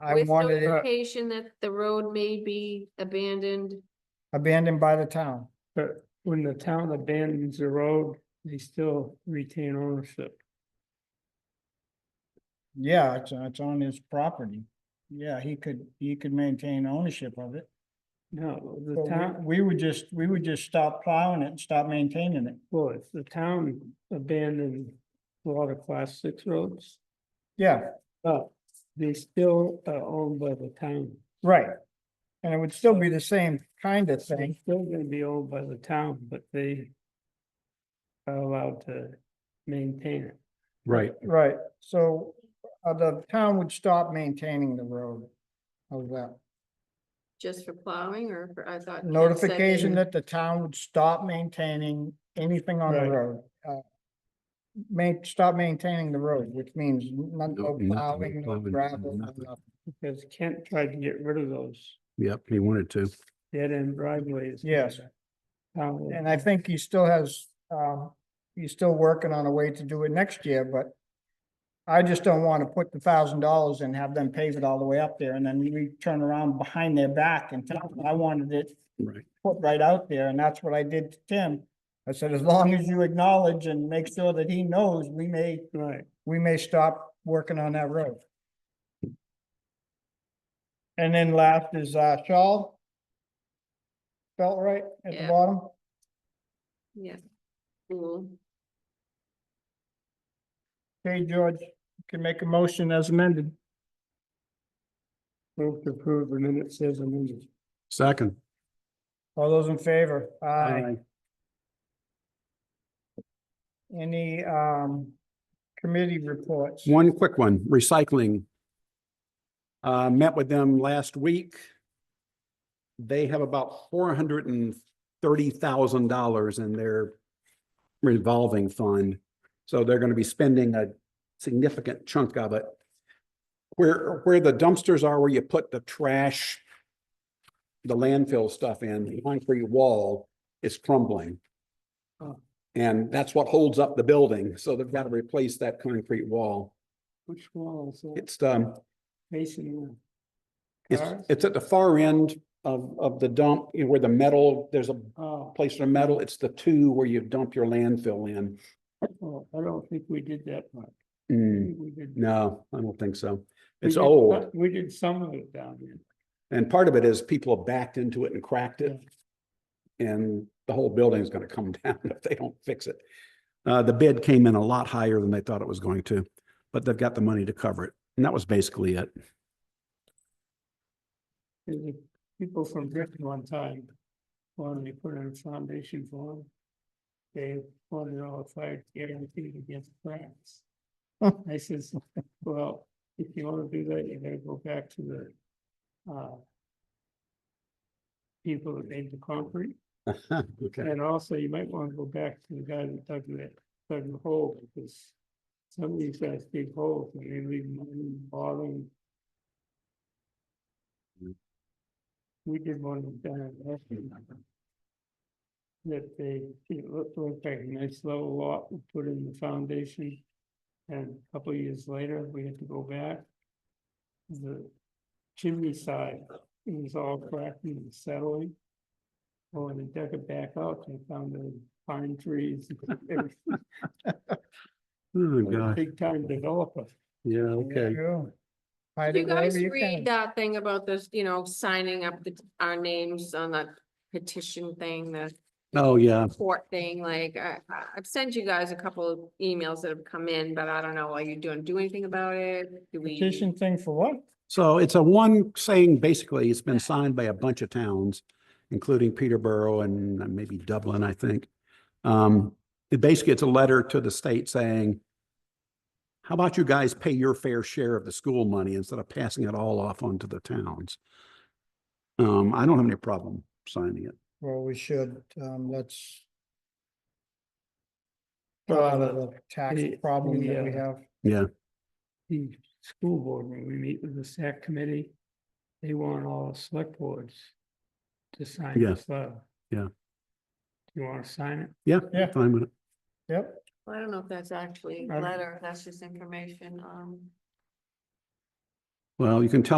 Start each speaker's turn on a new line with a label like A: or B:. A: I
B: with
A: wanted it
B: notification that the road may be abandoned.
A: abandoned by the town.
C: But when the town abandons the road, they still retain ownership.
A: Yeah, it's, it's on his property. Yeah, he could, he could maintain ownership of it.
C: No, the
A: But
C: town,
A: we, we would just, we would just stop plowing it and stop maintaining it.
C: well, if the town abandoned a lot of class six roads,
A: Yeah,
C: but they still are owned by the town.
A: right. And it would still be the same kind of
C: They're
A: thing.
C: still gonna be owned by the town, but they are allowed to maintain it.
D: Right,
A: Right, so uh, the town would stop maintaining the road. How's that?
B: Just for plowing or for, I thought. Ken said
A: Notification
B: in-
A: that the town would stop maintaining anything on the
C: Right.
A: road. uh, Main, stop maintaining the road, which means none,
D: No-
A: no
D: nothing, no
A: plowing, no
D: plowing,
A: gravel, no
D: nothing.
A: nothing.
C: Because Kent tried to get rid of those
D: yep, he wanted to.
C: dead end driveways.
A: Yes.
C: Town-
A: And I think he still has, um, he's still working on a way to do it next year, but I just don't want to put the thousand dollars and have them pave it all the way up there and then we turn around behind their back and tell them, I wanted it
D: Right,
A: put right out there, and that's what I did to Tim. I said, as long as you acknowledge and make sure that he knows, we may,
C: Right,
A: we may stop working on that road. And then last is, uh, Shaw. Felt right at the
B: Yeah.
A: bottom?
B: Yeah. Cool.
A: Okay, George, you can make a motion as amended.
C: move to approve the minutes as amended.
D: second.
A: All those in favor? Aye.
D: Aye.
A: Any, um, committee reports?
D: One quick one, recycling. Uh, met with them last week. They have about four hundred and thirty thousand dollars in their revolving fund. So they're gonna be spending a significant chunk of it. Where, where the dumpsters are, where you put the trash, the landfill stuff in, the concrete wall is crumbling. And that's what holds up the building, so they've got to replace that concrete wall.
C: Which walls?
D: It's, um,
C: Facing. the
D: it's,
C: cars?
D: it's at the far end of, of the dump, you know, where the metal, there's a
C: Oh,
D: place for metal, it's the two where you dump your landfill in.
C: oh, I don't think we did that part. I
D: Mm,
C: think we did-
D: no, I don't think so.
C: we
D: It's
C: did
D: old,
C: some- We did some of it down here.
D: and part of it is people have backed into it and cracked it. And the whole building's gonna come down if they don't fix it. Uh, the bid came in a lot higher than they thought it was going to, but they've got the money to cover it, and that was basically it.
C: There's a- people from Britain one time, wanted to put in a foundation for them. They wanted all the fire guaranteed against cracks. I says, well, if you wanna do that, you gotta go back to the, uh. People that made the concrete,
D: Okay,
C: and also you might wanna go back to the guy that dug that, dug the hole, because. Some of these guys dig holes, and they leave them in the bottom. We did one down in Ashland. That they, it looked looked like a nice level lot, we put in the foundation. And a couple of years later, we had to go back. The chimney side, it was all cracked and settling. Well, when Oh, they dug it back out, they found the pine trees. It was
D: oh,
C: a
D: God,
C: Big time developer.
D: yeah, okay.
A: True. Hide
B: You
A: it wherever
B: guys
A: you
B: read
A: can.
B: that thing about this, you know, signing up the, our names on that petition thing, the
D: Oh, yeah.
B: court thing, like, I, I- I've sent you guys a couple of emails that have come in, but I don't know, are you doing, do anything about it? Do we?
A: Petition thing for what?
D: So it's a one saying, basically, it's been signed by a bunch of towns, including Peterborough and uh, maybe Dublin, I think. Um, it basically, it's a letter to the state saying, how about you guys pay your fair share of the school money instead of passing it all off onto the towns? Um, I don't have any problem signing it.
A: Well, we should, um, let's. Go out of the tax
C: the-
A: problem that we
C: the, uh,
A: have.
D: Yeah,
C: the school board, when we meet with the SAC committee, they want all the select boards to sign
D: Yeah.
C: this letter.
D: Yeah.
C: You wanna sign it?
D: yeah.
A: Yeah.
D: Fine with it.
A: Yep,
B: I don't know if that's actually
C: I
B: a
C: don't-
B: letter, that's just information, um.
D: Well, you can tell